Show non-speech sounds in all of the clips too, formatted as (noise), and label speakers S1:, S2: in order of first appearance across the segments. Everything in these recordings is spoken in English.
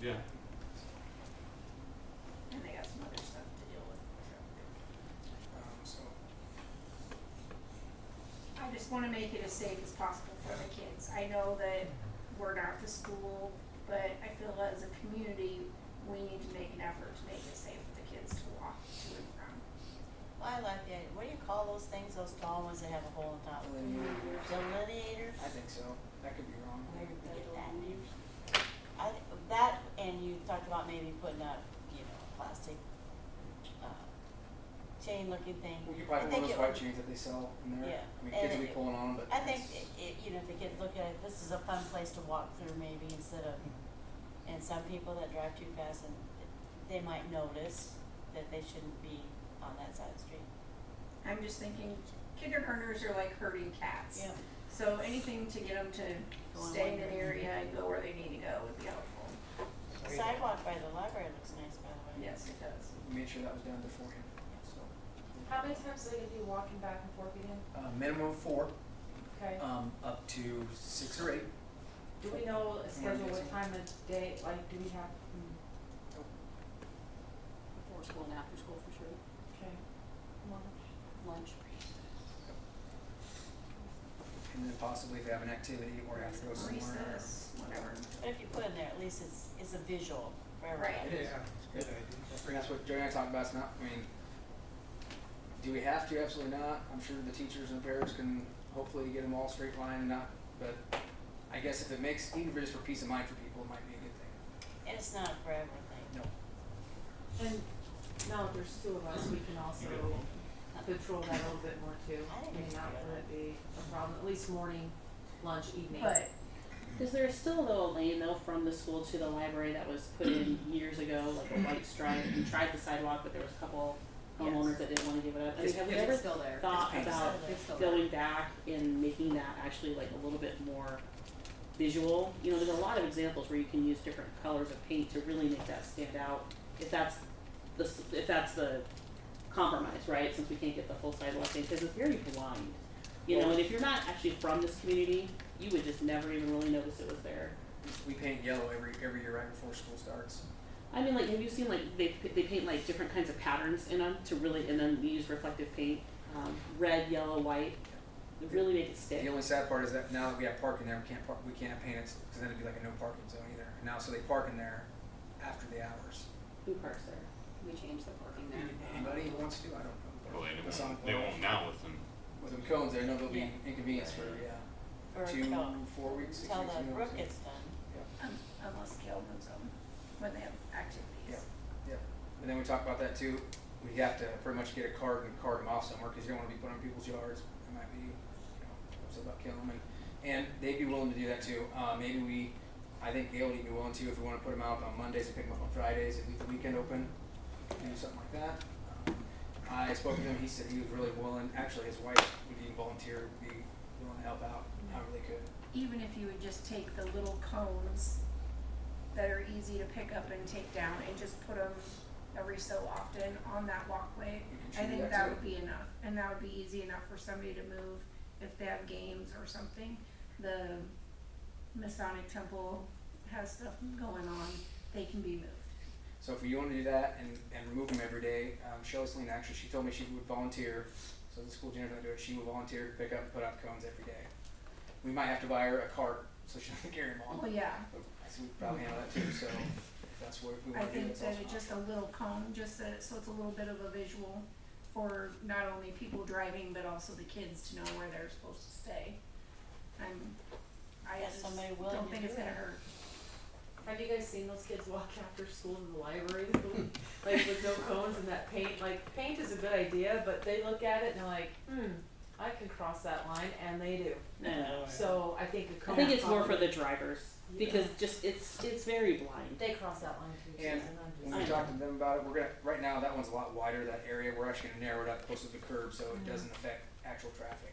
S1: Yeah,
S2: And they got some other stuff to deal with, so.
S3: Um, so,
S2: I just wanna make it as safe as possible for the kids. I know that we're not the school, but I feel as a community, we need to make an effort to make it safe for the kids to walk to and from.
S4: Well, I like that. What do you call those things, those tall ones that have a hole on top?
S3: delineators,
S4: Delineators?
S3: I think so, that could be wrong.
S4: Where did we get that? I, th- that, and you talked about maybe putting up, you know, a plastic, uh, chain looking thing.
S3: We could buy
S4: I
S3: one
S4: think
S3: of those
S4: it
S3: white
S4: would-
S3: chains that they sell in there,
S4: Yeah,
S3: I mean,
S4: and
S3: kids will be
S4: it-
S3: pulling on, 'em, but.
S4: I think,
S3: it's-
S4: i- i- you know, if the kids look at it, this is a fun place to walk through maybe instead of, and some people that drive too fast and they might notice that they shouldn't be on that side of the street.
S2: I'm just thinking kindergartners are like herding cats.
S4: Yeah.
S2: So anything to get them to
S4: Go in
S2: stay in
S4: one
S2: an area and go where they need to go would be helpful.
S4: The sidewalk by the library looks nice, by the way.
S2: Yes, it does.
S3: We made sure that was done beforehand, so.
S5: How many times are they gonna be walking back and forth again?
S3: Uh, minimum of four,
S5: Okay.
S3: um, up to six or eight.
S5: Do we know a schedule,
S3: guessing.
S5: what time of day, like, do we have,
S3: Oh,
S5: mm,
S6: Before school and after school for sure,
S5: okay. Lunch.
S6: lunch.
S3: And then possibly if they have an activity or have to go somewhere. or-
S2: Recess, whatever.
S4: But if you put in there, at least it's, it's a visual for everyone.
S2: Right.
S3: It is. Good idea. And that's what Joanne talked about, it's not, I mean, do we have to? Absolutely not. I'm sure the teachers and parents can hopefully get them all straight line, not, but I guess if it makes, even if it's for peace of mind for people, it might be a good thing.
S4: And it's not for everything.
S3: No.
S5: And now that there's two of us, we can also control that a little bit more too.
S4: I think
S5: I mean,
S4: it's
S5: not
S4: good.
S5: let it be a problem, at least morning, lunch, evening.
S6: But is there still a little lane though from the school to the library that was put in years ago, like a white stripe? We tried the sidewalk, but there was a couple homeowners that didn't wanna give it up. I mean,
S3: It's-
S6: have we
S3: it's
S6: ever
S5: still there.
S6: thought
S3: It's
S6: about
S4: painted.
S5: It's still there.
S6: going back and making that actually like a little bit more visual? You know, there's a lot of examples where you can use different colors of paint to really make that stand out. If that's the, s- if that's the compromise, right? Since we can't get the full sidewalk thing, because it's very blind. You know, and if you're not actually from this community, you would just never even really notice it was there.
S3: We paint yellow every, every year right before school starts.
S6: I mean, like, have you seen like they they paint like different kinds of patterns in them to really, and then they use reflective paint, um, red, yellow, white, to really make it
S3: The
S6: stick.
S3: only sad part is that now that we have parking there, we can't park, we can't paint it, cause then it'd be like a no parking zone either. And Now, so they park in there after the hours.
S6: Who parks there?
S7: We changed the parking there.
S3: Anybody who wants to, I don't know.
S1: well, they
S3: That's on
S1: won't, they
S3: the-
S1: won't now with them.
S3: With them cones there, I know they'll be
S4: Yeah.
S3: inconvenienced for, yeah.
S4: Or
S3: two,
S4: till,
S3: four weeks, six
S4: till
S3: weeks.
S4: the
S3: you know,
S4: brook
S3: so-
S4: gets done.
S2: Um, Unless Gail moves them when they have activities.
S3: Yeah. And then we talked about that too. We have to pretty much get a card and cart them off somewhere because you don't want to be putting them in people's yards. It might be, you know, it's about killing them. And, and they'd be willing to do that too. Uh, maybe we, I think Gail would be willing to if we want to put them out on Mondays and pick them up on Fridays and leave the weekend open, do something like that. Um, I spoke to him. He said he was really willing. Actually, his wife would even volunteer, would be willing to help out however they could.
S2: even if you would just take the little cones that are easy to pick up and take down and just put them every so often on that walkway,
S3: You can
S2: I
S3: shoot
S2: think
S3: that
S2: that
S3: too.
S2: would be enough, and that would be easy enough for somebody to move if they have games or something. The Masonic Temple has stuff going on, they can be moved.
S3: So if you want to do that and, and remove them every day, um, Shelley Celine actually, she told me she would volunteer. So the school janitor doesn't do it. She would volunteer to pick up and put out cones every day. We might have to buy her a cart so she doesn't (laughs) carry them all.
S2: Well, yeah,
S3: But I see we probably handle that too. So if that's what we
S2: I
S3: want to do.
S2: think
S3: That's
S2: that
S3: also
S2: it's
S3: an
S2: just a little cone, just so, so it's a little bit of a visual for not only people driving, but also the kids to know where they're supposed to stay. I'm, I
S4: Yeah,
S2: just
S4: somebody willing
S2: don't
S4: to
S2: think it's
S4: do
S2: gonna
S4: it.
S2: hurt.
S5: Have you guys seen those kids walk after school in the (laughs) library, like with no cones and that paint? Like paint is a good idea, but they look at it and they're like, hmm, I can cross that line, and they do.
S6: No,
S5: So I think a
S6: I
S5: cone.
S6: think it's more for
S5: probably-
S6: the drivers because just it's it's very blind.
S5: They cross that line too.
S3: And
S5: Susan, I'm just-
S3: When we talk to them about it, we're gonna, right now, that one's a lot wider, that area, we're actually gonna narrow it up closer to the curb, so
S2: Mm-hmm.
S3: it doesn't affect actual traffic.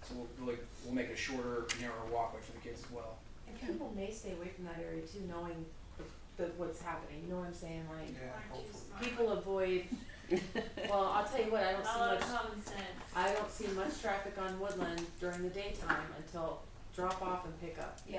S3: So we'll, really, we'll make it a shorter, narrower walkway for the kids as well.
S5: And people may stay away from that area too, knowing the, the, what's happening, you know what I'm saying, like,
S3: Yeah,
S5: people avoid,
S6: (laughs)
S5: well, I'll tell you what, I don't see much,
S8: common sense.
S5: I don't see much traffic on Woodland during the daytime until drop off and pick up.